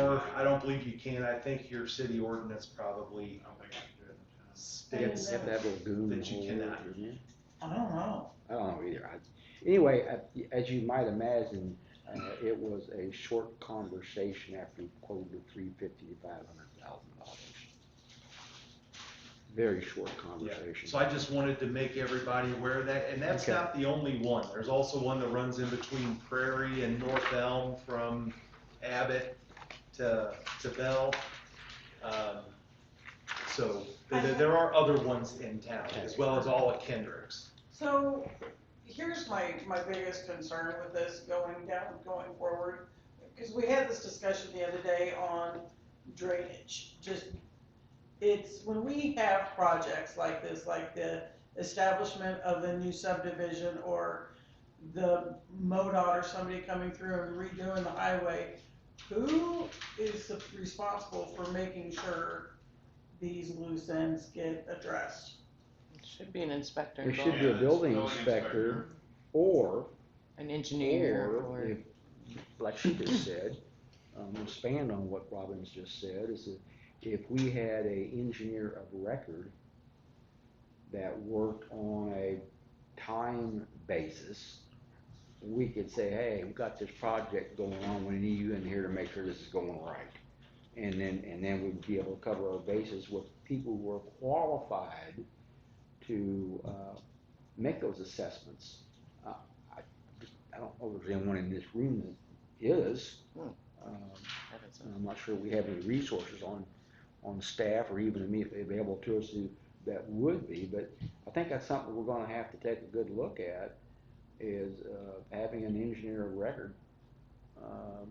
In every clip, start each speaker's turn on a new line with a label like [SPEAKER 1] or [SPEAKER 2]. [SPEAKER 1] Or I don't believe you can. I think your city ordinance probably states
[SPEAKER 2] That
[SPEAKER 1] that.
[SPEAKER 3] lagoon
[SPEAKER 1] That you
[SPEAKER 3] hole,
[SPEAKER 1] cannot.
[SPEAKER 3] isn't it?
[SPEAKER 2] I don't know.
[SPEAKER 3] I don't know either. I, anyway, I, as you might imagine, uh, it was a short conversation after we quoted the three fifty to five hundred thousand dollars. Very short
[SPEAKER 1] Yeah.
[SPEAKER 3] conversation.
[SPEAKER 1] So I just wanted to make everybody aware of that, and that's
[SPEAKER 3] Okay.
[SPEAKER 1] not the only one. There's also one that runs in between Prairie and North Elm from Abbott to, to Bell. Um, So there, there- there are other ones in town, as well as all at Kendrick's.
[SPEAKER 2] So here's my, my biggest concern with this going down, going forward, because we had this discussion the other day on drainage. Just, it's, when we have projects like this, like the establishment of the new subdivision or the MoDOT or somebody coming through and redoing the highway, who is responsible for making sure these loose ends get addressed?
[SPEAKER 4] Should be an inspector
[SPEAKER 3] It
[SPEAKER 4] involved,
[SPEAKER 3] should be a building inspector, or,
[SPEAKER 4] an engineer
[SPEAKER 3] or,
[SPEAKER 4] or,
[SPEAKER 3] if, like she just said, um, expand on what Robin's just said, is that if we had a engineer of record that worked on a time basis, we could say, hey, we've got this project going on, we need you in here to make sure this is going right. And then, and then we'd be able to cover our bases with people who are qualified to, uh, make those assessments. Uh, I, I don't know if there's anyone in this room that is.
[SPEAKER 4] Hmm.
[SPEAKER 3] Um,
[SPEAKER 4] that is
[SPEAKER 3] and I'm not sure we have any resources on, on staff or even immediately available to us who that would be, but I think that's something we're gonna have to take a good look at, is, uh, having an engineer of record, uh,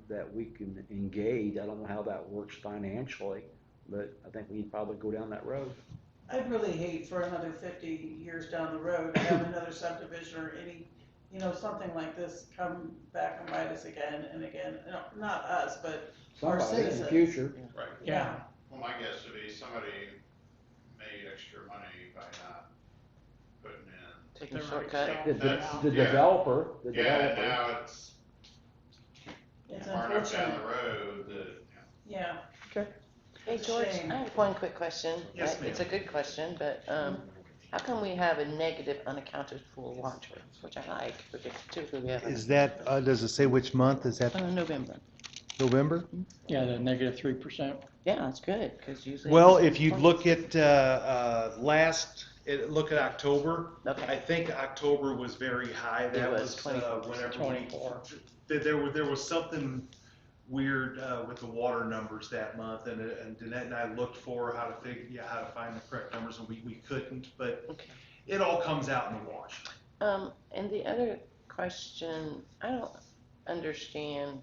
[SPEAKER 3] that we can engage, I don't know how that works financially, but I think we need to probably go down that road.
[SPEAKER 2] I'd really hate for another fifty years down the road to have another subdivision or any, you know, something like this come back and bite us again and again. No, not us, but Our
[SPEAKER 3] Somebody in the
[SPEAKER 2] citizens.
[SPEAKER 3] future,
[SPEAKER 5] Right,
[SPEAKER 2] yeah.
[SPEAKER 5] well, my guess would be somebody made extra money by not putting in.
[SPEAKER 4] taking shortcut.
[SPEAKER 3] the, the
[SPEAKER 5] That's-
[SPEAKER 3] the
[SPEAKER 5] yeah.
[SPEAKER 3] developer, the
[SPEAKER 5] Yeah, and
[SPEAKER 3] developer,
[SPEAKER 5] now it's
[SPEAKER 2] It's
[SPEAKER 5] far enough down
[SPEAKER 2] unfortunate.
[SPEAKER 5] the road that, you
[SPEAKER 2] Yeah.
[SPEAKER 4] Hey, George, I have one quick question.
[SPEAKER 1] Yes,
[SPEAKER 4] Uh, It's a good question, but, um, how come we have a negative unaccounted for water, which I like, which is typically we have
[SPEAKER 6] Is
[SPEAKER 4] in
[SPEAKER 6] that, uh, does it say which month? Is that
[SPEAKER 4] uh, November.
[SPEAKER 6] November?
[SPEAKER 7] Yeah, the negative three percent.
[SPEAKER 4] Yeah, that's good, because usually.
[SPEAKER 1] Well, if you look at, uh, uh, last, it, look at October, I
[SPEAKER 4] Okay,
[SPEAKER 1] think October was very high, that
[SPEAKER 4] was
[SPEAKER 1] was, uh,
[SPEAKER 4] 24%.
[SPEAKER 1] whenever we.
[SPEAKER 7] 24.
[SPEAKER 1] There, there was, there was something weird, uh, with the water numbers that month, and, uh, and Danette and I looked for how to figure, yeah, how to find the correct numbers, and we, we couldn't, but
[SPEAKER 4] okay.
[SPEAKER 1] it all comes out in the wash.
[SPEAKER 4] Um, and the other question, I don't understand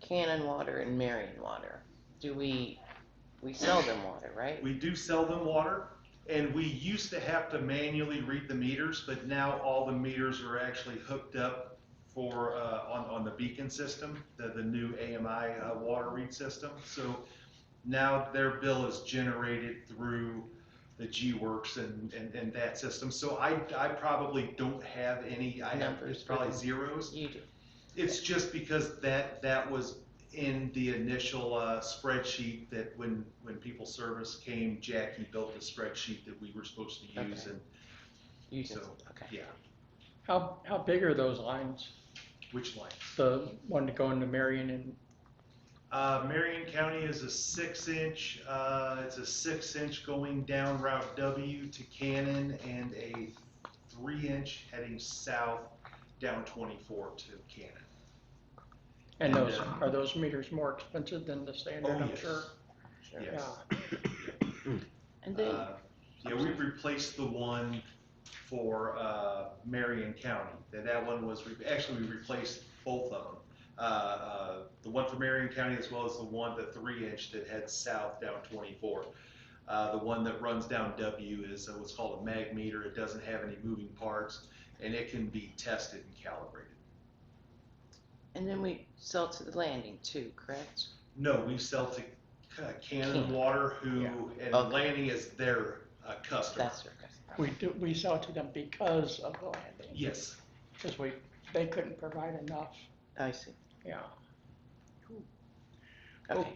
[SPEAKER 4] Cannon Water and Marion Water. Do we, we sell them water, right?
[SPEAKER 1] We do sell them water, and we used to have to manually read the meters, but now all the meters are actually hooked up for, uh, on, on the beacon system, the, the new AMI, uh, water read system. So now their bill is generated through the G-Works and, and, and that system. So I, I probably don't have any, I have,
[SPEAKER 4] Numbers
[SPEAKER 1] it's
[SPEAKER 4] for
[SPEAKER 1] probably
[SPEAKER 4] them.
[SPEAKER 1] zeros.
[SPEAKER 4] You do.
[SPEAKER 1] It's just because that, that was in the initial uh, spreadsheet that when, when people service came, Jackie built a spreadsheet that we were supposed to use
[SPEAKER 4] Okay.
[SPEAKER 1] and,
[SPEAKER 4] You do.
[SPEAKER 1] So-
[SPEAKER 4] Okay.
[SPEAKER 1] yeah,
[SPEAKER 7] How, how big are those lines?
[SPEAKER 1] which line?
[SPEAKER 7] The one to go into Marion and,
[SPEAKER 1] Uh, Marion County is a six inch, uh, it's a six inch going down Route W to Cannon and a three inch heading south down twenty-four to Cannon.
[SPEAKER 7] and those, are those meters more expensive than the standard,
[SPEAKER 1] Oh,
[SPEAKER 7] I'm
[SPEAKER 1] yes.
[SPEAKER 7] sure?
[SPEAKER 4] Sure.
[SPEAKER 1] Yes.
[SPEAKER 7] Yeah.
[SPEAKER 4] And then,
[SPEAKER 1] Uh, Yeah, we replaced the one for uh, Marion County. That that one was, re- actually, we replaced both of them. Uh, uh, The one for Marion County as well as the one, the three inch that heads south down 24. Uh, The one that runs down W is uh, what's called a mag meter. It doesn't have any moving parts and it can be tested and calibrated.
[SPEAKER 4] and then we sell to the landing too, correct?
[SPEAKER 1] No, we sell to uh, Cannon
[SPEAKER 4] Cannon.
[SPEAKER 1] Water who, and
[SPEAKER 4] Okay.
[SPEAKER 1] Lanning is their uh, customer.
[SPEAKER 4] That's your question.
[SPEAKER 7] We do, we sell to them because of the landing,
[SPEAKER 1] Yes.
[SPEAKER 7] because we, they couldn't provide enough,
[SPEAKER 4] I see.
[SPEAKER 7] yeah.
[SPEAKER 4] Okay.